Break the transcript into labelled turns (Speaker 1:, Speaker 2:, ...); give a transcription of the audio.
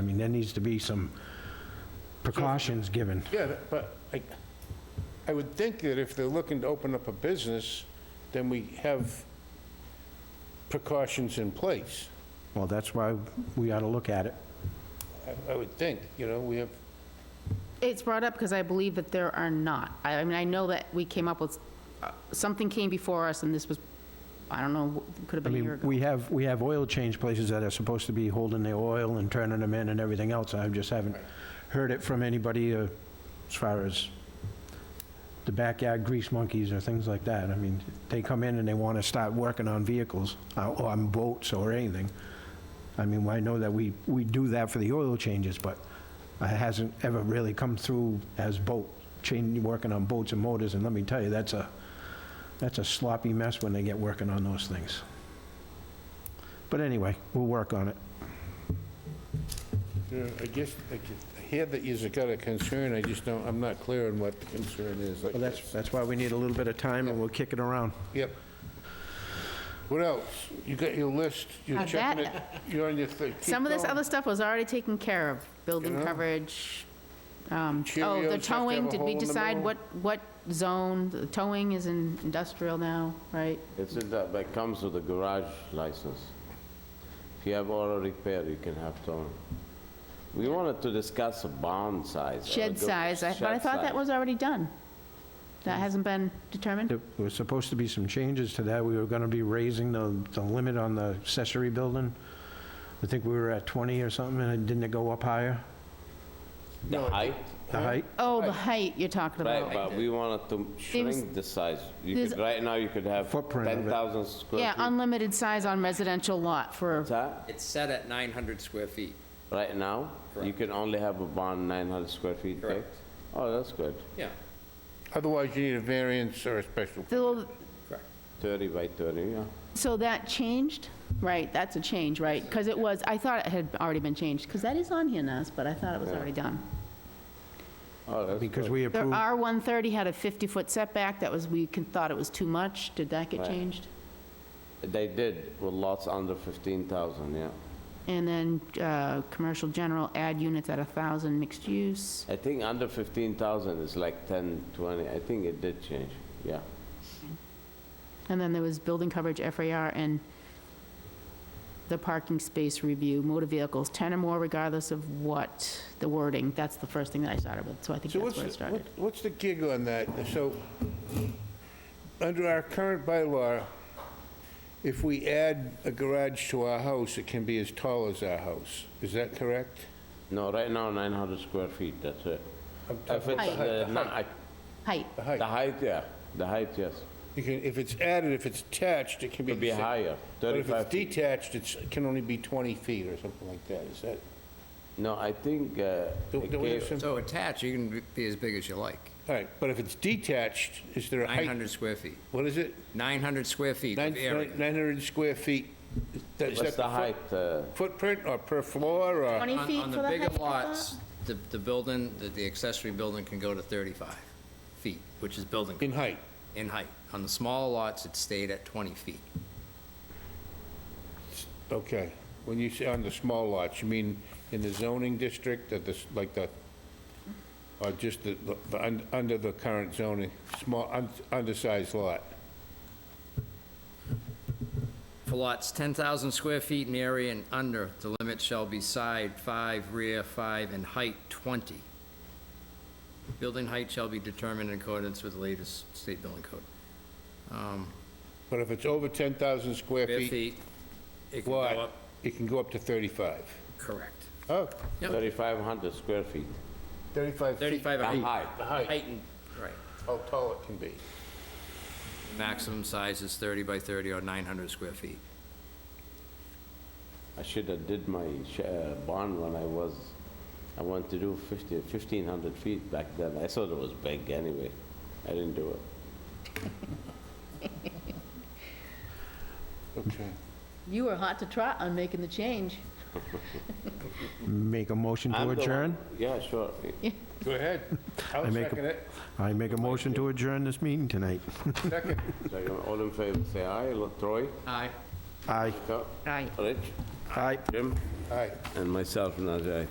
Speaker 1: mean, there needs to be some precautions given.
Speaker 2: Yeah, that- but I, I would think that if they're looking to open up a business, then we have precautions in place.
Speaker 1: Well, that's why we ought to look at it.
Speaker 2: I- I would think, you know, we have,
Speaker 3: It's brought up because I believe that there are not. I I mean, I know that we came up with, uh, something came before us and this was, I don't know, could have
Speaker 1: I
Speaker 3: been a year
Speaker 1: mean,
Speaker 3: ago.
Speaker 1: we have, we have oil change places that are supposed to be holding their oil and turning them in and everything else. I just haven't heard it from anybody uh, as far as the backyard grease monkeys or things like that. I mean, they come in and they want to start working on vehicles uh, or on boats or anything. I mean, I know that we, we do that for the oil changes, but it hasn't ever really come through as boat, change, working on boats and motors. And let me tell you, that's a, that's a sloppy mess when they get working on those things. But anyway, we'll work on it.
Speaker 2: you know, I guess, I ju- I hear that you've got a concern, I just don't, I'm not clear on what the concern is. like
Speaker 1: Well, Oh, that's,
Speaker 2: this.
Speaker 1: that's why we need a little bit of time, and we'll kick it around.
Speaker 2: Yep. What else? You got your list, you're
Speaker 3: Now
Speaker 2: checking it,
Speaker 3: that-
Speaker 2: you're on your thing. Keep
Speaker 3: Some of this
Speaker 2: going.
Speaker 3: other stuff was already taken care of, building
Speaker 2: Yeah.
Speaker 3: coverage. um,
Speaker 2: Cheerios
Speaker 3: Oh,
Speaker 2: have
Speaker 3: the
Speaker 2: to have
Speaker 3: towing,
Speaker 2: a
Speaker 3: did
Speaker 2: hole
Speaker 3: we
Speaker 2: in the
Speaker 3: decide
Speaker 2: middle.
Speaker 3: what, what zone? The towing is in industrial now, right?
Speaker 4: It's in that, that comes with a garage license. If you have auto repair, you can have towing. We wanted to discuss a barn size. or a
Speaker 3: Shed
Speaker 4: gar-
Speaker 3: size, I- but I
Speaker 4: shed
Speaker 3: thought that
Speaker 4: size. Mm.
Speaker 3: was already done. That hasn't been determined?
Speaker 1: There was supposed to be some changes to that. We were gonna be raising the, the limit on the accessory building. I think we were at 20 or something, and didn't it go up higher,
Speaker 4: The height,
Speaker 1: the height?
Speaker 3: Oh, the height you're talking
Speaker 4: right,
Speaker 3: about.
Speaker 4: but we wanted to shrink the size. You
Speaker 3: there's-
Speaker 4: could, right now, you could have
Speaker 1: Footprint of it.
Speaker 4: 10,000 square feet.
Speaker 3: Yeah, um, unlimited size on residential lot for,
Speaker 4: What's that?
Speaker 5: It's set at 900 square feet.
Speaker 4: Right now, you
Speaker 5: Correct.
Speaker 4: can only have a barn 900 square feet big?
Speaker 5: Correct.
Speaker 4: Oh, that's good.
Speaker 5: Yeah,
Speaker 2: Otherwise, you need a variance or a special.
Speaker 3: Phil,
Speaker 4: 30 by 30, yeah.
Speaker 3: so that changed? Right, that's a change, right? Because it was, I thought it had already been changed, because that is on here now, but I thought it was already done.
Speaker 4: Oh, that's
Speaker 1: Because
Speaker 4: good.
Speaker 1: we
Speaker 3: The
Speaker 1: approved,
Speaker 3: R-130 had a 50-foot setback, that was, we can- thought it was too much, did that get
Speaker 4: Right.
Speaker 3: changed?
Speaker 4: They did with lots under 15,000, yeah.
Speaker 3: And then, uh, commercial general, add units at 1,000, mixed use.
Speaker 4: I think under 15,000 is like 10, 20, I think it did change, yeah.
Speaker 3: And then there was building coverage, FAR, and the parking space review, motor vehicles, 10 or more regardless of what, the wording, that's the first thing that I started with, so I think
Speaker 2: So
Speaker 3: that's
Speaker 2: what's,
Speaker 3: where it
Speaker 2: the-
Speaker 3: started.
Speaker 2: what- what's the gig on that? So, under our current bylaw, if we add a garage to our house, it can be as tall as our house. Is that correct?
Speaker 4: No, right now, 900 square feet, that's it. If it's,
Speaker 3: height.
Speaker 4: uh, not- I-
Speaker 3: Height,
Speaker 2: The
Speaker 4: the
Speaker 2: height?
Speaker 4: height, yeah, the height, yes.
Speaker 2: You can, if it's added, if it's attached, it can be...
Speaker 4: Could be
Speaker 2: the same.
Speaker 4: higher,
Speaker 2: But if
Speaker 4: 35
Speaker 2: it's
Speaker 4: feet.
Speaker 2: detached, it's, it can only be 20 feet or something like that. Is that,
Speaker 4: No, I think, uh,
Speaker 2: do
Speaker 4: it
Speaker 2: do we have
Speaker 4: gave-
Speaker 2: some... All
Speaker 5: so attached, you can be as big as you like.
Speaker 2: right, but if it's detached, is there a height?
Speaker 5: 900 square feet.
Speaker 2: What is it?
Speaker 5: 900 square feet
Speaker 2: Nine-
Speaker 5: of
Speaker 2: nine-
Speaker 5: area.
Speaker 2: 900 square feet? Is that- is that
Speaker 4: what's the
Speaker 2: foot-
Speaker 4: height? uh,
Speaker 2: Footprint or per floor or...
Speaker 3: 20
Speaker 5: On-
Speaker 3: feet for the height?
Speaker 5: On the
Speaker 3: I
Speaker 5: bigger
Speaker 3: thought?
Speaker 5: lots, the, the building, the- the accessory building can go to 35 feet, which is building
Speaker 2: In height?
Speaker 5: in height. On the smaller lots, it stayed at 20 feet.
Speaker 2: Okay. When you say on the small lots, you mean in the zoning district, or this, like the, or just the, the, un- under the current zoning, small, un- undersized lot?
Speaker 5: For lots 10,000 square feet in area and under, the limit shall be side 5, rear 5, and height 20. Building height shall be determined in accordance with the latest state building code. Um,
Speaker 2: But if it's over 10,000 square
Speaker 5: Bare
Speaker 2: feet
Speaker 5: feet. It can go
Speaker 2: wide,
Speaker 5: up,
Speaker 2: it can go up to 35.
Speaker 5: correct.
Speaker 2: Oh,
Speaker 5: Yep.
Speaker 4: 3,500 square feet,
Speaker 2: 35 feet.
Speaker 5: 35
Speaker 4: the
Speaker 5: height.
Speaker 4: height.
Speaker 2: The height,
Speaker 5: Height and, right.
Speaker 2: how tall it can be.
Speaker 5: Maximum size is 30 by 30 or 900 square feet.
Speaker 4: I should have did my sh- uh, barn when I was, I wanted to do 50 1,500 feet back then. I thought it was big anyway. I didn't do it.
Speaker 2: Okay.
Speaker 3: You were hot to trot on making the change.
Speaker 1: make a motion
Speaker 4: I'm
Speaker 1: to
Speaker 4: the one-
Speaker 1: adjourn?
Speaker 4: Yeah, sure.
Speaker 2: Go ahead. I'll
Speaker 1: I make a-
Speaker 2: second it.
Speaker 1: I make a motion to adjourn this meeting tonight.
Speaker 2: Second.
Speaker 4: So, All in favor, say aye. Lo- Troy?
Speaker 5: Aye.
Speaker 1: Aye.
Speaker 4: Scott?
Speaker 3: Aye.
Speaker 4: Rich?
Speaker 1: Aye.
Speaker 4: Jim?
Speaker 2: All right.
Speaker 4: And myself, Najai.